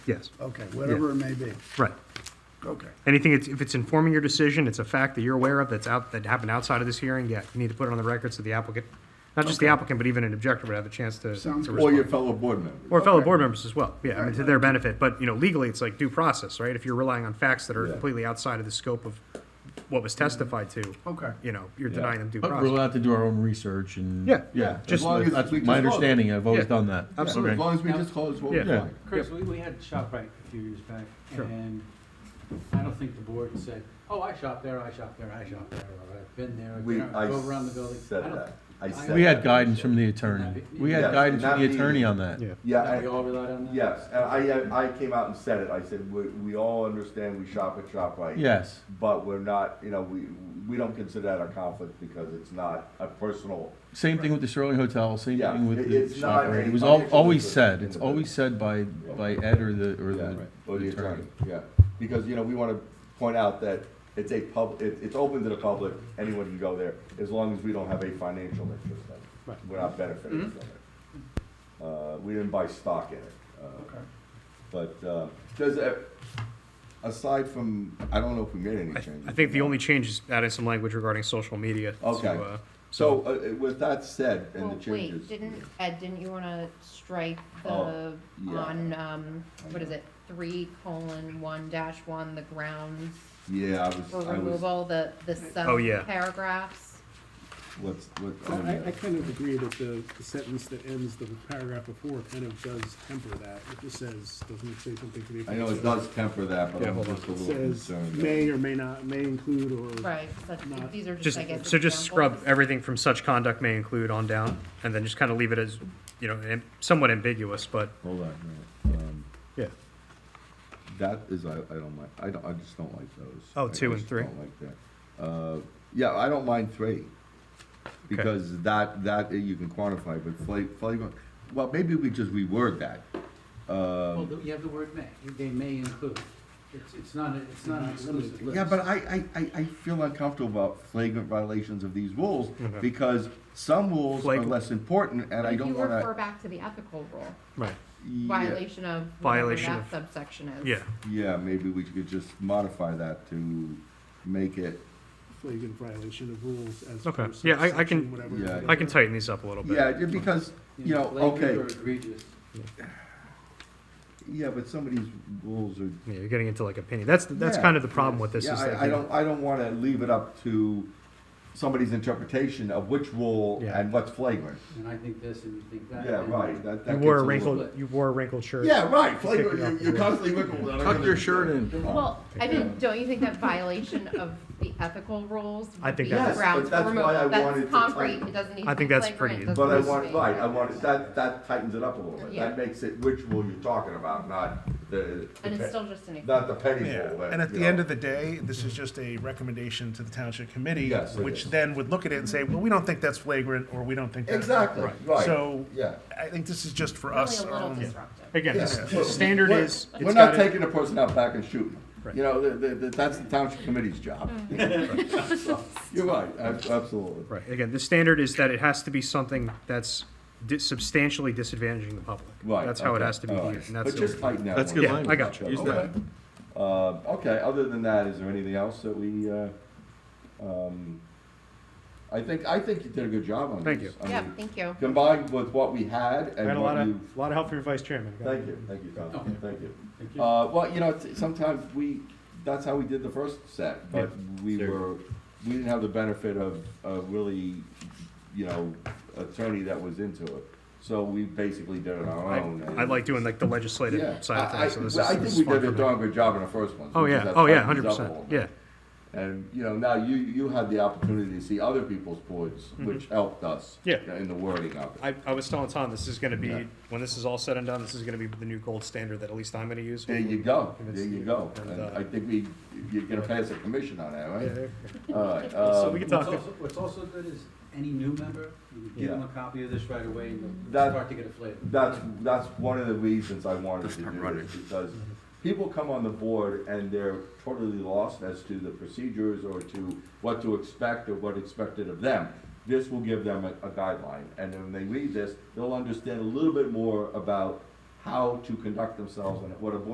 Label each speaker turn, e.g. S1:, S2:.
S1: Yes,
S2: Okay, whatever it may be.
S1: right.
S2: Okay.
S1: Anything, it's- if it's informing your decision, it's a fact that you're aware of that's out, that happened outside of this hearing, yeah, you need to put it on the record so the applicant, not just the applicant, but even an objector would have a chance to.
S2: Sounds
S1: to
S2: good.
S3: Or your
S1: respond.
S3: fellow board members.
S1: Or fellow board members as well, yeah, I mean, to their benefit, but, you know, legally, it's like due process, right? If you're relying on facts that are
S3: Yeah.
S1: completely outside of the scope of what was testified to,
S2: Okay.
S1: you know, you're
S3: Yeah.
S1: denying them due
S4: But we're
S1: process.
S4: allowed to do our own research and.
S1: Yeah.
S3: Yeah,
S4: Just,
S3: as long as
S4: that's
S3: we disclose it.
S4: my understanding, I've always
S1: Yeah.
S4: done that.
S1: Absolutely.
S3: As
S4: Okay.
S3: long as we disclose what we
S1: Yeah.
S3: find.
S5: Chris, we, we had ShopRite a few years back,
S1: Sure.
S5: and I don't think the board said, oh, I shop there, I shop there, I shop there, or I've been there, I've
S3: We,
S5: been-
S3: I
S5: go around the building.
S3: said
S5: I don't-
S3: that. I
S5: We
S3: said
S4: We had
S3: that.
S4: guidance from the attorney. We
S3: Yeah,
S4: had guidance from
S3: not
S4: the
S3: me.
S4: attorney on that.
S1: Yeah,
S3: Yeah,
S5: that We
S3: I,
S5: all relied on that?
S3: yes, and I, I came out and said it. I said, we, we all understand we shop at ShopRite.
S4: Yes,
S3: But we're not, you know, we, we don't consider that a conflict because it's not a personal,
S4: same thing with the Sterling Hotel, same
S3: Yeah,
S4: thing with
S3: it-
S4: the
S3: it's not
S4: shop, right?
S3: any
S4: It was al-
S3: financial
S4: always
S3: interest
S4: said,
S3: in
S4: it's
S3: the
S4: always said by, by Ed or the, or
S3: yeah,
S4: the
S3: or the attorney,
S4: attorney.
S3: yeah. Because, you know, we wanna point out that it's a pub, it, it's open to the public, anyone can go there, as long as we don't have a financial interest in it. We're not benefiting
S1: Mm-hmm.
S3: from it. Uh, we didn't buy stock in it. Uh,
S2: Okay.
S3: But, uh, does, uh, aside from, I don't know if we made any
S1: I,
S3: changes.
S1: I think the only change is adding some language regarding social media to,
S3: Okay.
S1: uh,
S3: So, uh, with that said, and
S6: Well,
S3: the changes.
S6: wait, didn't, Ed, didn't you wanna strike the,
S3: Oh, yeah.
S6: on, um, what is it, three colon one dash one, the grounds
S3: Yeah, I was,
S6: for
S3: I was,
S6: removal, the, the
S1: Oh, yeah.
S6: sub-paragraphs?
S3: let's, let's.
S7: I, I- I kind of agree that the, the sentence that ends the paragraph before kind of does temper that. It just says, doesn't it say something to the
S3: I
S7: effect
S3: know it
S7: of-
S3: does temper that, but
S1: Yeah,
S3: I'm
S1: hold
S3: just a
S7: It
S3: little
S7: Says
S3: concerned. that-
S7: may or may not, may include or.
S6: Right, such,
S7: Not-
S6: these are just,
S1: Just,
S6: I guess.
S1: so just scrub
S6: examples.
S1: everything from such conduct may include on down, and then just kind of leave it as, you know, am- somewhat ambiguous, but.
S3: Hold on, a minute. um,
S1: Yeah.
S3: that is, I, I don't like, I don't, I just don't like those.
S1: Oh,
S3: I
S1: two and
S3: just
S1: three.
S3: Don't like that. Uh, yeah, I don't mind three. Because that, that eh, you can quantify, but fla- flagrant, well, maybe we just reword that.
S5: Well,
S3: Um,
S5: you have the word may, they may include, it's, it's not, a- it's not an exclusive list.
S3: Yeah, but I, I, I, I feel uncomfortable about flagrant violations of these rules, because some rules are
S1: Flagrant.
S3: less important, and I
S6: If
S3: don't
S6: you refer
S3: wanna.
S6: back to the ethical rule,
S1: Right.
S3: Yeah,
S6: violation of whatever
S1: Violation
S6: that
S1: of-
S6: subsection is.
S1: Yeah,
S3: Yeah, maybe we could just modify that to make it,
S7: Flagrant violation of rules as.
S1: Okay.
S7: opposed to
S1: Yeah, I- I can-
S7: section whatever.
S3: Yeah,
S1: I can tighten these up a little bit.
S3: yeah, because, you know,
S5: blatant
S3: okay.
S5: or egregious.
S3: Yeah, but some of these rules are.
S1: Yeah, you're getting into like opinion. That's, that's
S3: Yeah.
S1: kind of the problem with this
S3: Yeah,
S1: is like.
S3: I, I
S1: you know,
S3: don't, I don't wanna leave it up to somebody's interpretation of which rule
S1: Yeah.
S3: and what's flagrant.
S5: And I think this and you think that.
S3: Yeah,
S5: and-
S3: right, that, that
S1: You
S3: gets
S1: wore a
S3: little-
S1: wrinkled,
S5: bit.
S1: you wore a wrinkled shirt.
S3: Yeah, right,
S1: Take it off
S3: flagrant,
S1: the
S3: you're
S1: wall.
S3: constantly wrinkled. I'm
S4: Tuck
S3: gonna-
S4: your shirt in.
S3: Oh,
S6: Well, I mean, don't you think that violation of the ethical rules
S1: I
S6: would
S1: think
S6: be
S1: that- Yes,
S3: but
S6: grounds for
S3: that's
S6: removal?
S3: why I wanted to
S6: That's
S3: tighten.
S6: concrete, it doesn't need
S1: I
S6: to
S1: think
S6: be
S1: that's
S6: flagrant.
S1: pretty-
S6: it doesn't
S3: But I
S6: need to
S3: want,
S6: be-
S3: right, I want, that, that tightens it up a little bit,
S6: Yeah.
S3: that makes it which rule you're talking about, not the,
S6: And it's still just an example.
S3: not the penny
S8: Yeah,
S3: rule. that,
S8: and at
S3: you
S8: the end
S3: know.
S8: of the day, this is just a recommendation to the township committee,
S3: Yes, it
S8: which
S3: is.
S8: then would look at it and say, well, we don't think that's flagrant, or we don't think that's.
S3: Exactly, right,
S8: So,
S3: yeah.
S8: I think this is just for
S6: Really
S8: us.
S6: a little
S8: um,
S6: disruptive.
S1: Again,
S3: Yeah.
S1: the s- the standard
S3: We're-
S1: is. it's
S3: We're not
S1: gotta-
S3: taking a person out back and shooting them. You know, the- the- the- that's the township committee's job. So, You're right, ab- absolutely.
S1: Right, again, the standard is that it has to be something that's di- substantially disadvantaging the public.
S3: Right.
S1: That's how it
S3: okay,
S1: has to be
S3: all right.
S1: viewed, and that's.
S3: But
S1: the-
S3: just tighten that
S4: That's
S3: one.
S4: good
S1: Yeah, I
S4: language.
S1: got you.
S4: Use
S3: Okay.
S4: that.
S3: Um, okay, other than that, is there anything else that we, uh, um, I think, I think you did a good job on this.
S1: Thank you.
S3: I
S6: Yeah,
S3: mean,
S6: thank you.
S3: Combined with what we had
S1: I had
S3: and
S1: a lot
S3: what
S1: of,
S3: you.
S1: a lot of help from your vice chairman.
S3: Thank you, thank you, Tom,
S5: Okay.
S3: thank you.
S5: Thank you.
S3: Uh, well, you know, it's- sometimes we, that's how we did the first set, but we
S4: Sure.
S3: were, we didn't have the benefit of, of really, you know, attorney that was into it. So we basically did it on our
S1: I,
S3: own. and-
S1: I like doing like the
S3: Oh, Yeah,
S1: legislative side of
S3: I, I,
S1: things, so this is.
S3: well, I
S1: this
S3: think
S1: is
S3: we
S1: fun
S3: did a
S1: for me.
S3: darn good job on the first one. so
S1: Oh,
S3: we just
S1: yeah,
S3: have to
S1: oh, yeah,
S3: tighten
S1: hundred
S3: these up a
S1: percent,
S3: little bit.
S1: yeah.
S3: And, you know, now you, you had the opportunity to see other people's boards, which helped us.
S1: Mm-hmm. Yeah.
S3: In the wording of it.
S1: I, I was telling Tom, this is gonna
S3: Yeah.
S1: be, when this is all said and done, this is gonna be the new gold standard that at least I'm gonna use.
S3: There you go,
S1: And
S3: there
S1: it's-
S3: you go.
S1: and,
S3: And
S1: uh,
S3: I think we, you're gonna pass a commission on that, right? All right,
S1: So
S3: um,
S1: we can
S5: What's
S1: talk,
S5: also, what's also good is any new member, you can give them
S3: Yeah.
S5: a copy of this right away and they'll
S3: That-
S5: start to get a flavor.
S3: That's, that's one of the reasons I wanted to do this, because
S1: Mm-hmm.
S3: people come on the board and they're totally lost as to the procedures or to what to expect or what expected of them. This will give them a, a guideline, and then when they read this, they'll understand a little bit more about how to conduct themselves and what a board